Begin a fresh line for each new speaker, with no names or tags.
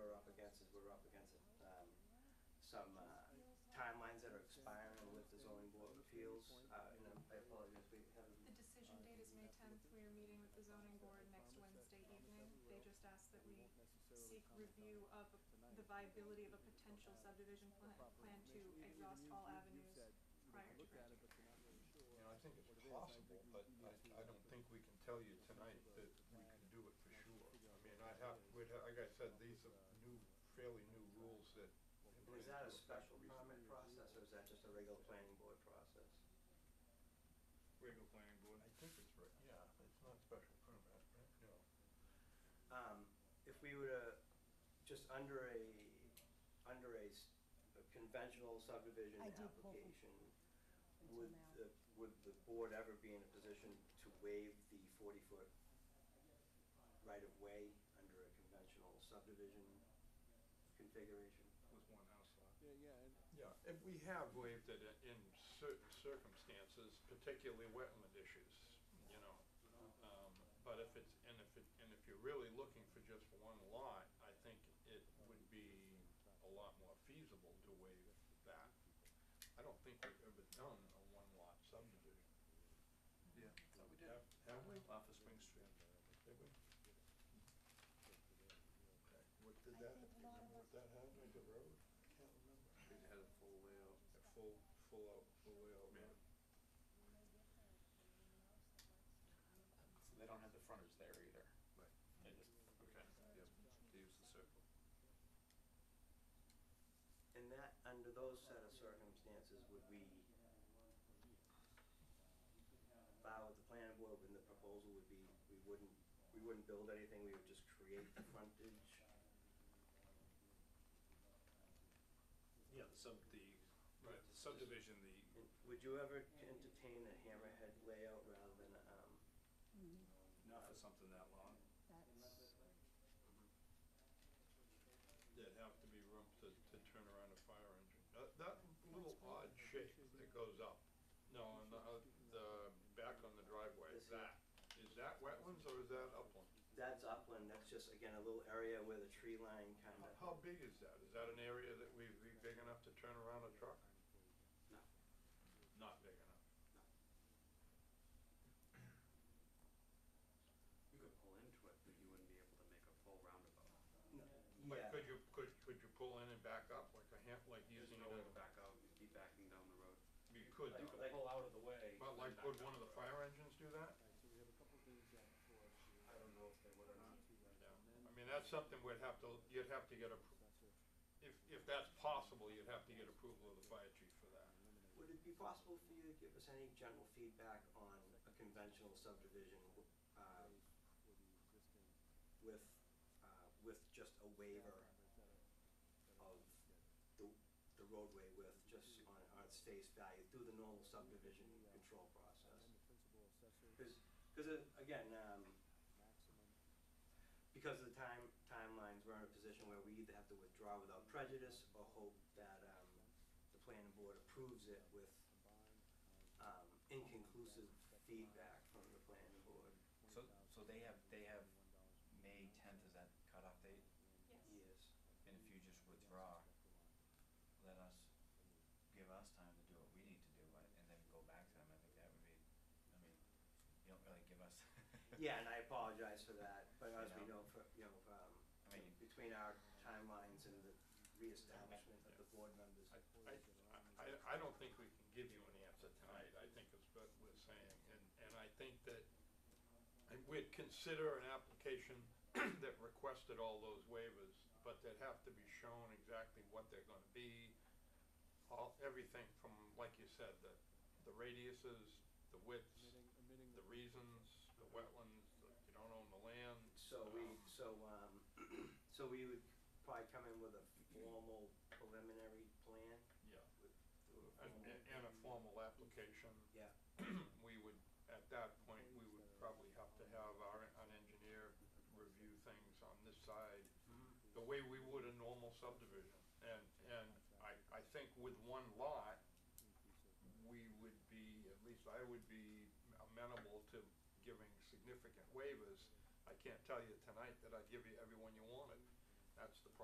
um, some uh, timelines that are expiring with the zoning board of appeals, uh, and I'm- I apologize, we haven't.
The decision date is May tenth, we are meeting with the zoning board next Wednesday evening. They just asked that we seek review of the viability of a potential subdivision plan, plan to exhaust all avenues prior to granting.
You know, I think it's possible, but I, I don't think we can tell you tonight that we can do it for sure. I mean, I'd have, we'd, ha- like I said, these are new, fairly new rules that. have been
Is that a
into effect
special
recently.
permit process, or is that just a regular planning board process?
Regular planning board.
I think it's right, yeah, it's not special permit, right? No.
Um, if we were to, just under a, under a s- a conventional subdivision
I did pull from-
application,
until
would
now.
the, would the board ever be in a position to waive the forty-foot right-of-way under a conventional subdivision configuration?
With one house lot.
Yeah, and we have waived it i- in certain circumstances, particularly wetland issues, you know. Um, but if it's, and if it, and if you're really looking for just one lot, I think it would be a lot more feasible to waive that. I don't think we've ever done a one-lot subdivision.
Yeah. Thought we did.
Have, have we?
Off of Spring Street.
Did we? Okay, what did that, do you remember what that had, like a road? I can't remember.
It had a full layout.
A full, full out, full layout road.
So they don't have the frontage there either.
Right.
They just, okay.
Yep. They used the circle.
And that, under those set of circumstances, would we file with the planning board, and the proposal would be, we wouldn't, we wouldn't build anything, we would just create the frontage?
Yeah, the sub, the
Right.
the subdivision, the,
And Would you ever entertain a hammerhead layout rather than, um,
Mm,
not for something that long.
That's,
There'd have to be room to, to turn around a fire engine. That, that little odd shape that goes up, no, on the, uh, the, back on the driveway,
This
that, is that wetlands or is that upland?
that's upland, that's just, again, a little area where the tree line kind
How,
of,
how big is that? Is that an area that we'd be big enough to turn around a truck?
No.
Not big enough.
You could pull into it, but you wouldn't be able to make a full roundabout.
But
yeah,
could you, could, could you pull in and back up like a ham, like
There's
using
no
it
way
as
to
a,
back out, you'd be backing down the road.
you could,
You
though.
could pull out of the way.
but like, would one of the fire engines do that?
I don't know if they would or not.
I mean, that's something we'd have to, you'd have to get a, if, if that's possible, you'd have to get approval of the fire chief for that.
would it be possible for you to give us any general feedback on a conventional subdivision, uh, with, uh, with just a waiver of the, the roadway width, just on, on its face value through the normal subdivision control process? Cause, 'cause, uh, again, um, because of the time, timelines, we're in a position where we either have to withdraw without prejudice or hope that, um, the planning board approves it with, um, inconclusive feedback from the planning board.
So, so they have, they have May tenth is that cutoff date,
Yes,
Yes.
and if you just withdraw, let us, give us time to do what we need to do, and and then go back to them, I think that would be, I mean, you don't really give us.
Yeah, and I apologize for that, but as we know, for, you know, um,
I mean-
between our timelines and the reestablishment of the board members.
I, I, I, I don't think we can give you an answer tonight, I think is what we're saying, and, and I think that and we'd consider an application that requested all those waivers, but they'd have to be shown exactly what they're gonna be, all, everything from, like you said, the, the radiuses, the widths, the reasons, the wetlands, that you don't own the land.
So we, so, um, so we would probably come in with a formal preliminary plan?
Yeah.
With-
And, and and a formal application.
Yeah.
We would, at that point, we would probably have to have our, an engineer review things on this side, the way we would a normal subdivision. And, and I, I think with one lot, we would be, at least I would be amenable to giving significant waivers. I can't tell you tonight that I'd give you everyone you wanted. That's the problem.